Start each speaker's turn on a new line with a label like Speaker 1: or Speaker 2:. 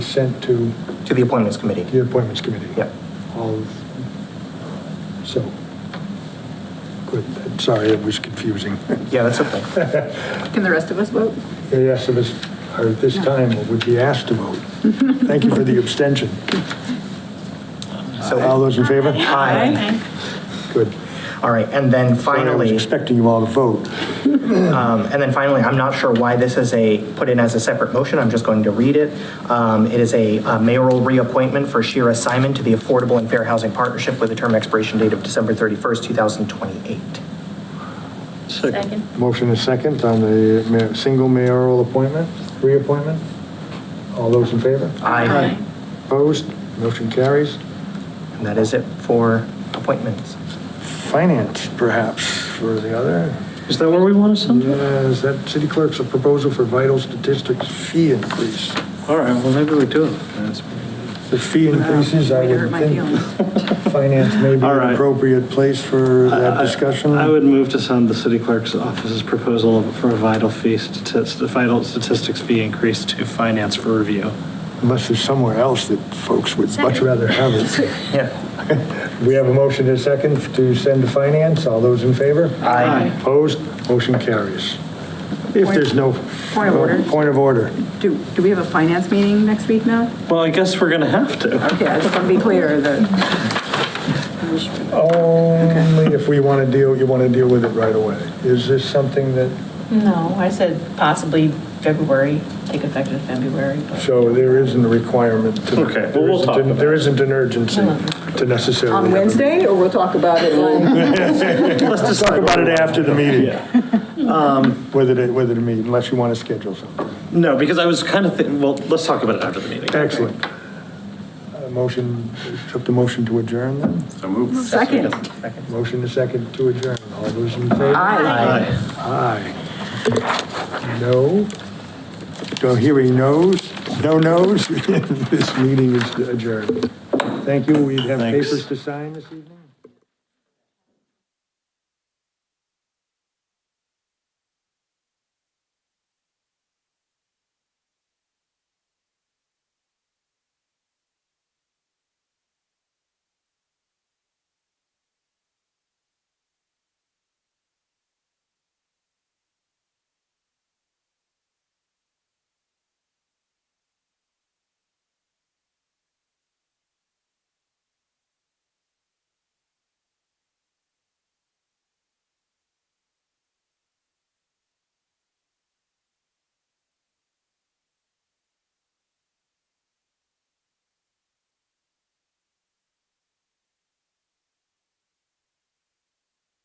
Speaker 1: sent to
Speaker 2: to the appointments committee.
Speaker 1: the appointments committee.
Speaker 2: Yep.
Speaker 1: All, of- so, good, I'm sorry, it was confusing.
Speaker 2: Yeah, that's okay.
Speaker 3: Can the rest of us vote?
Speaker 1: The rest of us are at this time, or would be asked to vote. Thank you for the abstention. All
Speaker 2: So,
Speaker 1: those in favor?
Speaker 2: Aye.
Speaker 1: Good.
Speaker 2: all right, and then
Speaker 1: Sorry, I was
Speaker 2: finally,
Speaker 1: expecting you all to vote.
Speaker 2: um, and then finally, I'm not sure why this is a, put in as a separate motion, I'm just going to read it. Um, It is a uh, mayoral reappointment for Shira Simon to the Affordable and Fair Housing Partnership with a term expiration date of December 31st, 2028.
Speaker 4: Second.
Speaker 1: Motion is second on the ma- single mayoral appointment, reappointment. All those in favor?
Speaker 2: Aye.
Speaker 1: Opposed? Motion carries.
Speaker 2: And that is it for appointments.
Speaker 1: Finance, perhaps, for the other.
Speaker 4: Is that where we want us
Speaker 1: Uh,
Speaker 4: on?
Speaker 1: Is that city clerk's a proposal for vital statistics fee increase?
Speaker 4: All right, well, maybe we do.
Speaker 1: The fee increases, I
Speaker 3: Way to uh, hurt
Speaker 1: would
Speaker 3: my
Speaker 1: think,
Speaker 3: feelings.
Speaker 1: finance may be
Speaker 4: All
Speaker 1: an
Speaker 4: right.
Speaker 1: appropriate place for that discussion.
Speaker 4: I would move to send the city clerk's office's proposal for a vital fee statistic, vital statistics fee increase to finance for review.
Speaker 1: Unless there's somewhere else that folks would much rather have it.
Speaker 2: Yeah.
Speaker 1: We have a motion and a second to send to finance. All those in favor?
Speaker 2: Aye.
Speaker 1: Opposed? Motion carries. If there's no.
Speaker 3: Point of order.
Speaker 1: Point of order.
Speaker 3: Do, do we have a finance meeting next week now?
Speaker 4: Well, I guess we're gonna have to.
Speaker 3: Okay, I just want to be clear that.
Speaker 1: Only if we want to deal, you want to deal with it right away. Is this something that,
Speaker 5: No, I said possibly February, take effect in February, but
Speaker 1: so there isn't a requirement to.
Speaker 4: Okay, well, we'll talk about it.
Speaker 1: There isn't an urgency to necessarily.
Speaker 3: On
Speaker 1: have a-
Speaker 3: Wednesday, or we'll talk about it on?
Speaker 4: Let's
Speaker 1: Let's talk about it after the meeting, Um,
Speaker 4: Yeah.
Speaker 1: whether to, whether to meet, unless you want to schedule something.
Speaker 4: No, because I was kind of thinking, well, let's talk about it after the meeting.
Speaker 1: Excellent. Uh, Motion, accept the motion to adjourn then?
Speaker 3: Second.
Speaker 1: Motion to second to adjourn. All those in favor?
Speaker 3: Aye.
Speaker 4: Aye.
Speaker 1: Aye. No? Don't hear any noes? No noes? This meeting is adjourned. Thank you. We have
Speaker 4: Thanks.
Speaker 1: papers to sign this evening?